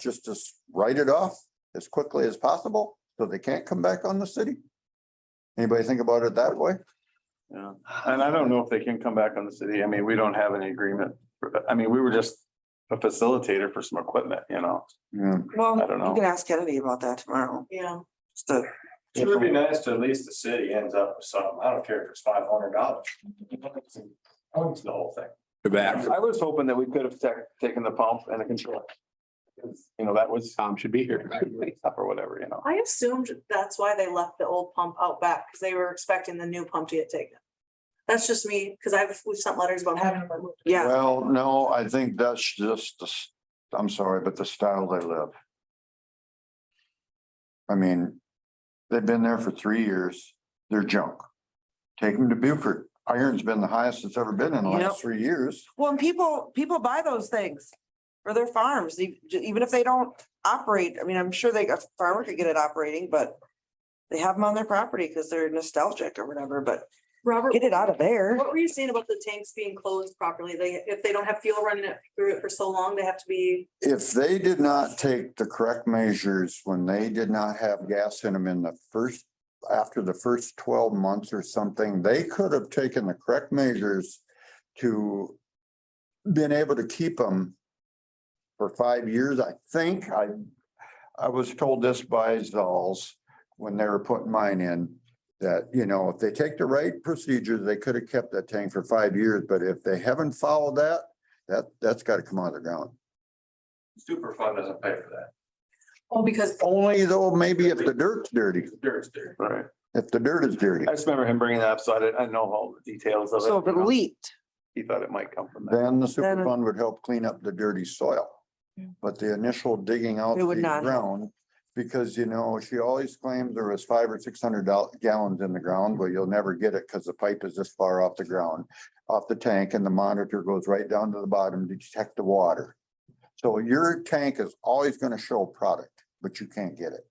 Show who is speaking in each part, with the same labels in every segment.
Speaker 1: just to s- write it off as quickly as possible, so they can't come back on the city? Anybody think about it that way?
Speaker 2: Yeah, and I don't know if they can come back on the city. I mean, we don't have any agreement. I mean, we were just a facilitator for some equipment, you know?
Speaker 1: Yeah,
Speaker 3: Well,
Speaker 2: I don't know.
Speaker 3: you can ask Kennedy about that tomorrow.
Speaker 4: Yeah,
Speaker 3: Just to-
Speaker 5: It would be nice to at least the city ends up with something. I don't care if it's five hundred dollars. Owns the whole thing.
Speaker 6: You're back.
Speaker 2: I was hoping that we could have ta- taken the pump and the controller. You know, that was
Speaker 6: Tom should be here.
Speaker 2: up or whatever, you know?
Speaker 4: I assumed that's why they left the old pump out back, because they were expecting the new pump to get taken. That's just me, because I've, we've sent letters about having them removed.
Speaker 3: Yeah,
Speaker 1: well, no, I think that's just, the s- I'm sorry, but the style they live. I mean, they've been there for three years, they're junk. Take them to Beaufort, iron's been the highest it's ever been in the
Speaker 3: Yep.
Speaker 1: last three years.
Speaker 3: well, and people, people buy those things for their farms, e- j- even if they don't operate. I mean, I'm sure they, a farmer could get it operating, but they have them on their property because they're nostalgic or whatever, but
Speaker 4: Robert,
Speaker 3: get it out of there.
Speaker 4: what were you saying about the tanks being closed properly? They, if they don't have fuel running it through it for so long, they have to be,
Speaker 1: if they did not take the correct measures when they did not have gas in them in the first, after the first twelve months or something, they could have taken the correct measures to been able to keep them for five years, I think. I, I was told this by Zolls when they were putting mine in, that, you know, if they take the right procedures, they could have kept that tank for five years, but if they haven't followed that, that, that's got to come out of the ground.
Speaker 5: Superfund doesn't pay for that.
Speaker 4: oh, because
Speaker 1: Only though, maybe if the dirt's dirty,
Speaker 5: Dirt's dirt.
Speaker 2: Right.
Speaker 1: if the dirt is dirty,
Speaker 2: I just remember him bringing that up, so I didn't, I know all the details of it.
Speaker 3: So if it
Speaker 2: you know?
Speaker 3: leaked,
Speaker 2: He thought it might come from that.
Speaker 1: then the super
Speaker 3: Then-
Speaker 1: fund would help clean up the dirty soil. But the initial digging out
Speaker 3: It would
Speaker 1: the
Speaker 3: not.
Speaker 1: ground, because you know, she always claims there was five or six hundred doll- gallons in the ground, but you'll never get it because the pipe is this far off the ground, off the tank and the monitor goes right down to the bottom to detect the water. So your tank is always gonna show product, but you can't get it.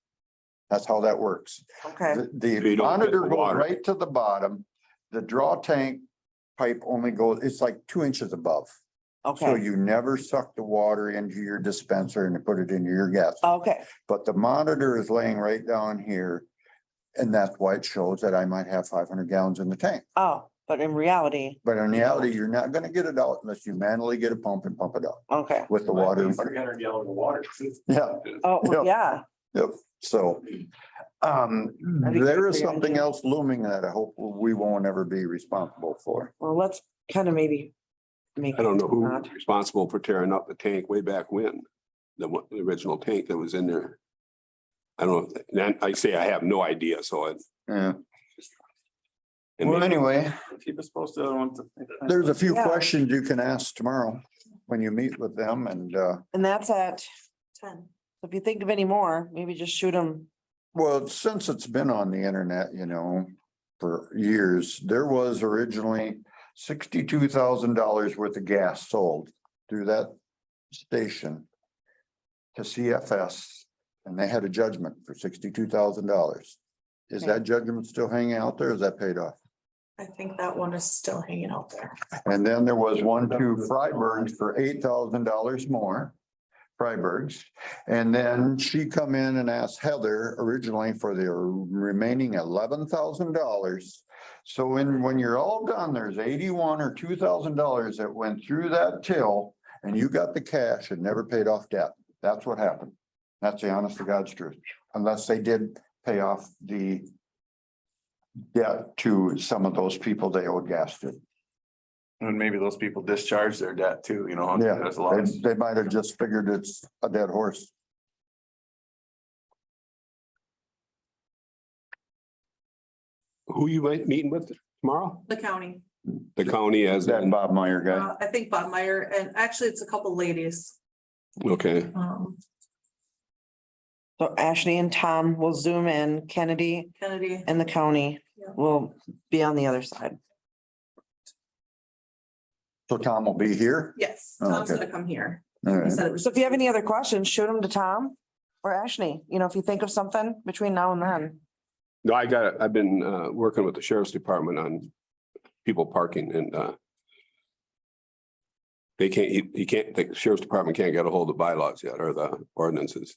Speaker 1: That's how that works.
Speaker 3: okay.
Speaker 1: The-
Speaker 6: So you
Speaker 1: The
Speaker 6: don't get
Speaker 1: monitor
Speaker 6: the
Speaker 1: goes
Speaker 6: water.
Speaker 1: right to the bottom. The draw tank pipe only goes, it's like two inches above. So
Speaker 3: Okay,
Speaker 1: you never suck the water into your dispenser and put it into your gas.
Speaker 3: okay,
Speaker 1: But the monitor is laying right down here. And that's why it shows that I might have five hundred gallons in the tank.
Speaker 3: oh, but in reality,
Speaker 1: But in reality, you're not gonna get it out unless you manually get a pump and pump it out
Speaker 3: okay.
Speaker 1: with the water.
Speaker 5: Three hundred gallon of water.
Speaker 1: Yeah,
Speaker 3: Oh, well, yeah,
Speaker 1: yep. So um,
Speaker 3: I think
Speaker 1: there
Speaker 3: that's
Speaker 1: is
Speaker 3: a good
Speaker 1: something
Speaker 3: idea.
Speaker 1: else looming that I hope we won't ever be responsible for.
Speaker 3: well, let's kind of maybe make.
Speaker 6: I don't know who
Speaker 3: Not.
Speaker 6: was responsible for tearing up the tank way back when, the one, the original tank that was in there. I don't, know. then I say I have no idea, so I.
Speaker 1: Yeah.
Speaker 6: and
Speaker 1: Well,
Speaker 6: maybe-
Speaker 1: anyway,
Speaker 2: He was supposed to, I don't want to.
Speaker 1: there's a few
Speaker 3: Yeah.
Speaker 1: questions you can ask tomorrow when you meet with them and, uh,
Speaker 3: And that's at,
Speaker 4: ten.
Speaker 3: if you think of any more, maybe just shoot them.
Speaker 1: well, since it's been on the internet, you know, for years, there was originally sixty-two thousand dollars worth of gas sold through that station to CFS, and they had a judgment for sixty-two thousand dollars. Is
Speaker 3: Okay.
Speaker 1: that judgment still hanging out there? Is that paid off?
Speaker 4: I think that one is still hanging out there.
Speaker 1: And then there was one to Freiberg's for eight thousand dollars more. Freiberg's. And then she come in and asked Heather originally for the remaining eleven thousand dollars. So in, when you're all done, there's eighty-one or two thousand dollars that went through that till and you got the cash and never paid off debt. That's what happened. That's the honest to God's truth, unless they did pay off the debt to some of those people they owed gas to.
Speaker 2: And maybe those people discharge their debt too, you know?
Speaker 1: Yeah,
Speaker 2: There's a lot.
Speaker 1: They, they might have just figured it's a dead horse.
Speaker 6: Who you might meeting with tomorrow?
Speaker 4: The county,
Speaker 6: The county as,
Speaker 1: That
Speaker 6: in-
Speaker 1: Bob Meyer guy.
Speaker 4: uh, I think Bob Meyer, and actually it's a couple ladies.
Speaker 6: okay,
Speaker 4: Um,
Speaker 3: So Ashley and Tom will zoom in, Kennedy
Speaker 4: Kennedy,
Speaker 3: and the county
Speaker 4: Yeah.
Speaker 3: will be on the other side.
Speaker 1: So Tom will be here.
Speaker 4: yes,
Speaker 1: Oh,
Speaker 4: Tom's
Speaker 1: okay.
Speaker 4: gonna come here.
Speaker 1: All
Speaker 4: He
Speaker 1: right.
Speaker 4: said it was-
Speaker 3: So if you have any other questions, shoot them to Tom or Ashley, you know, if you think of something between now and then.
Speaker 6: no, I got, I've been uh working with the sheriff's department on people parking and uh. They can't, he, he can't, the sheriff's department can't get a hold of bylaws yet or the ordinances.